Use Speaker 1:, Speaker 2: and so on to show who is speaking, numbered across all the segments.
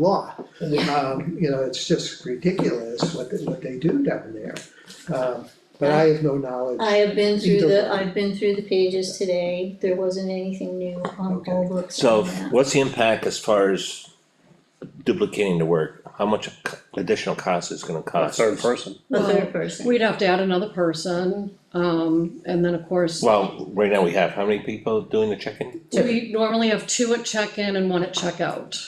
Speaker 1: law.
Speaker 2: Yeah.
Speaker 1: Um, you know, it's just ridiculous what they, what they do down there. Um, but I have no knowledge.
Speaker 2: I have been through
Speaker 1: Either way.
Speaker 2: the, I've been through the pages today, there wasn't anything new on
Speaker 1: Okay.
Speaker 2: poll books
Speaker 3: So
Speaker 2: on that.
Speaker 3: what's the impact as far as duplicating the work? How much additional cost is gonna
Speaker 4: A
Speaker 3: cost?
Speaker 4: third person.
Speaker 2: The
Speaker 5: Well,
Speaker 2: third person,
Speaker 5: We'd have to add another person, um, and then of course,
Speaker 3: Well, right now we have, how many people doing the check-in?
Speaker 5: we normally have two at check-in and one at checkout.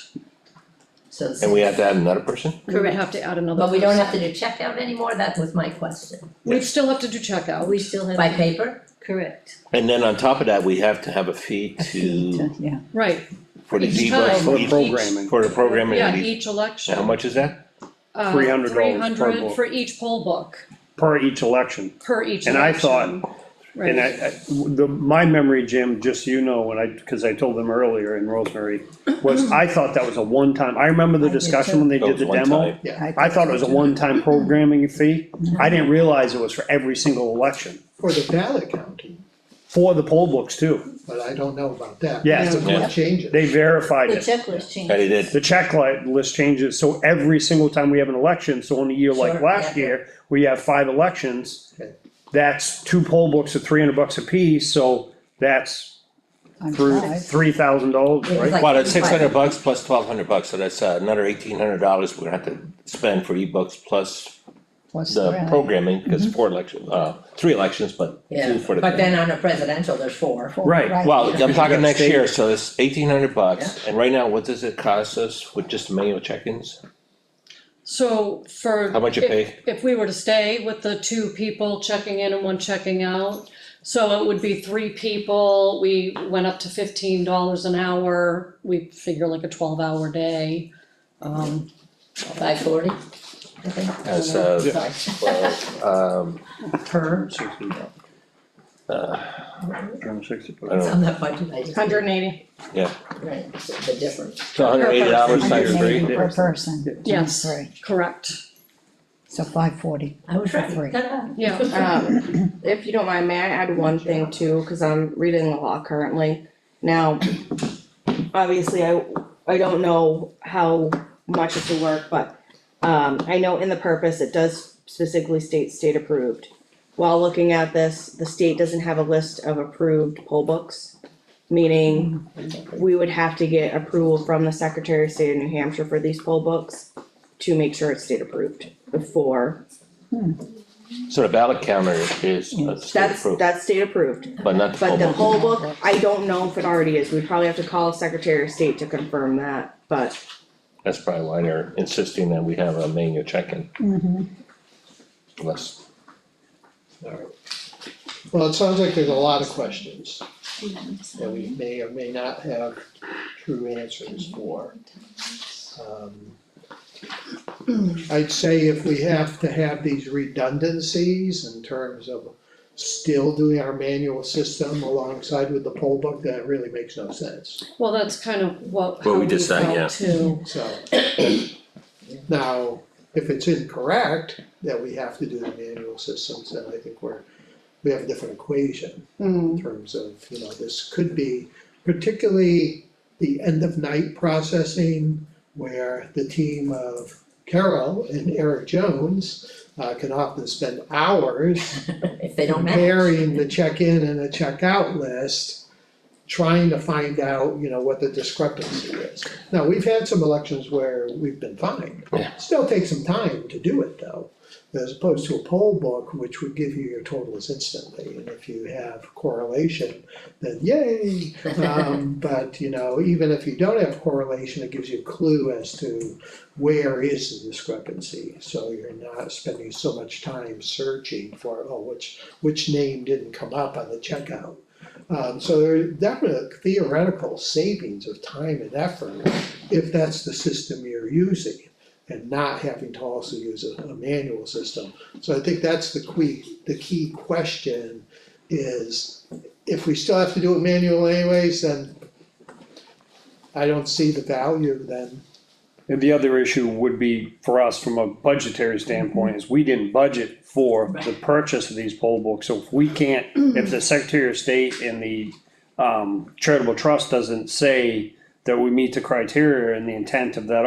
Speaker 6: So,
Speaker 3: And we have to add another person?
Speaker 5: We would have to add another
Speaker 6: but we don't
Speaker 5: person.
Speaker 6: have to do checkout anymore, that was my question,
Speaker 5: We'd still have to do checkout.
Speaker 2: we still
Speaker 6: by
Speaker 2: have,
Speaker 6: paper?
Speaker 2: correct,
Speaker 3: And then on top of that, we have to have a fee to,
Speaker 7: Yeah,
Speaker 5: Right,
Speaker 3: for the
Speaker 5: Each
Speaker 3: zebras.
Speaker 5: time.
Speaker 4: For
Speaker 3: each- each-
Speaker 4: programming.
Speaker 3: For the programming,
Speaker 5: yeah,
Speaker 3: of these-
Speaker 5: each election.
Speaker 3: how much is that?
Speaker 5: Uh,
Speaker 4: $300 per
Speaker 5: 300
Speaker 4: book.
Speaker 5: for each poll book,
Speaker 4: per each election.
Speaker 5: per each election.
Speaker 4: And I
Speaker 5: Right.
Speaker 4: And I, I- the, my memory, Jim, just so you know, when I, cause I told them earlier in Rosemary, was I thought that was a one-time, I remember the
Speaker 7: I did
Speaker 4: discussion
Speaker 7: too.
Speaker 4: when they
Speaker 3: That
Speaker 4: did
Speaker 3: was
Speaker 4: the
Speaker 3: one
Speaker 4: demo.
Speaker 3: time.
Speaker 4: I thought it was a one-time programming fee. I didn't realize it was for every single election,
Speaker 1: For the ballot counting,
Speaker 4: for the poll books too.
Speaker 1: but I don't know about that.
Speaker 4: Yes.
Speaker 1: That's what
Speaker 3: Yeah.
Speaker 1: changes.
Speaker 4: They verified
Speaker 2: the
Speaker 4: it.
Speaker 2: checklist
Speaker 3: Yeah, they
Speaker 2: change,
Speaker 3: did.
Speaker 4: The checklist changes, so every single time we have an election, so in a year like
Speaker 6: Sure,
Speaker 4: last
Speaker 6: yeah.
Speaker 4: year, we have five elections.
Speaker 1: Okay.
Speaker 4: That's two poll books at three hundred bucks apiece, so that's
Speaker 7: I'm
Speaker 4: through
Speaker 7: five.
Speaker 4: three thousand dollars,
Speaker 6: It was
Speaker 4: right?
Speaker 6: like
Speaker 3: Well, that's six hundred
Speaker 6: 35.
Speaker 3: bucks plus twelve hundred bucks, so that's uh, another eighteen hundred dollars we're gonna have to spend for e-books plus
Speaker 7: plus
Speaker 3: the
Speaker 7: three.
Speaker 3: programming, because four elections, uh, three elections, but two for the.
Speaker 6: Yeah, but then on a presidential, there's four.
Speaker 4: Right.
Speaker 3: Well, I'm talking next
Speaker 4: state.
Speaker 3: year, so it's eighteen hundred bucks, and right now, what does it cost us with just manual check-ins?
Speaker 5: So for.
Speaker 3: How much you
Speaker 5: if-
Speaker 3: pay?
Speaker 5: If we were to stay with the two people checking in and one checking out, so it would be three people, we went up to fifteen dollars an hour, we figure like a twelve hour day. Um,
Speaker 6: Five forty, I think.
Speaker 3: As a,
Speaker 6: Sorry.
Speaker 3: um,
Speaker 6: Per,
Speaker 3: uh,
Speaker 6: it's on that budget, I just.
Speaker 8: Hundred and eighty.
Speaker 6: Right, the difference.
Speaker 3: so hundred eighty dollars times
Speaker 7: Hundred
Speaker 3: three,
Speaker 7: eighty per person, times
Speaker 5: Yes.
Speaker 7: three,
Speaker 5: correct,
Speaker 7: so five forty.
Speaker 6: I was
Speaker 7: Three.
Speaker 6: right, ta-da.
Speaker 5: yeah.
Speaker 8: Um, if you don't mind, may I add one thing too, cause I'm reading the law currently. Now, obviously, I, I don't know how much it's will work, but, um, I know in the purpose, it does specifically state state approved. While looking at this, the state doesn't have a list of approved poll books, meaning we would have to get approval from the Secretary of State of New Hampshire for these poll books to make sure it's state approved before
Speaker 3: so the ballot counter is a state
Speaker 8: That's,
Speaker 3: approved,
Speaker 8: that's state approved,
Speaker 3: but not the
Speaker 8: but the
Speaker 3: full.
Speaker 8: whole book, I don't know if it already is, we probably have to call Secretary of State to confirm that, but.
Speaker 3: That's probably why they're insisting that we have a manual check-in list.
Speaker 1: Well, it sounds like there's a lot of questions that we may or may not have true answers for. Um, I'd say if we have to have these redundancies in terms of still doing our manual system alongside with the poll book, that really makes no sense,
Speaker 5: Well, that's kind of what,
Speaker 3: What
Speaker 5: how
Speaker 3: we
Speaker 5: we
Speaker 3: decide, yeah.
Speaker 5: felt too,
Speaker 1: so. Now, if it's incorrect that we have to do the manual systems, then I think we're, we have a different equation.
Speaker 5: Mm,
Speaker 1: in terms of, you know, this could be particularly the end of night processing where the team of Carol and Eric Jones uh, can often spend hours
Speaker 6: If they don't match,
Speaker 1: comparing the check-in and the check-out list, trying to find out, you know, what the discrepancy is. Now, we've had some elections where we've been fine.
Speaker 3: Yeah.
Speaker 1: Still takes some time to do it though, as opposed to a poll book, which would give you your totals instantly. And if you have correlation, then yay. Um, but, you know, even if you don't have correlation, it gives you a clue as to where is the discrepancy? So you're not spending so much time searching for, oh, which, which name didn't come up on the checkout? Um, so there are definite theoretical savings of time and effort if that's the system you're using and not having to also use a, a manual system. So I think that's the key, the key question is, if we still have to do it manual anyways, then I don't see the value then.
Speaker 4: And the other issue would be for us from a budgetary standpoint is we didn't budget for the purchase of these poll books. So if we can't, if the Secretary of State and the um charitable trust doesn't say that we meet the criteria and the intent of that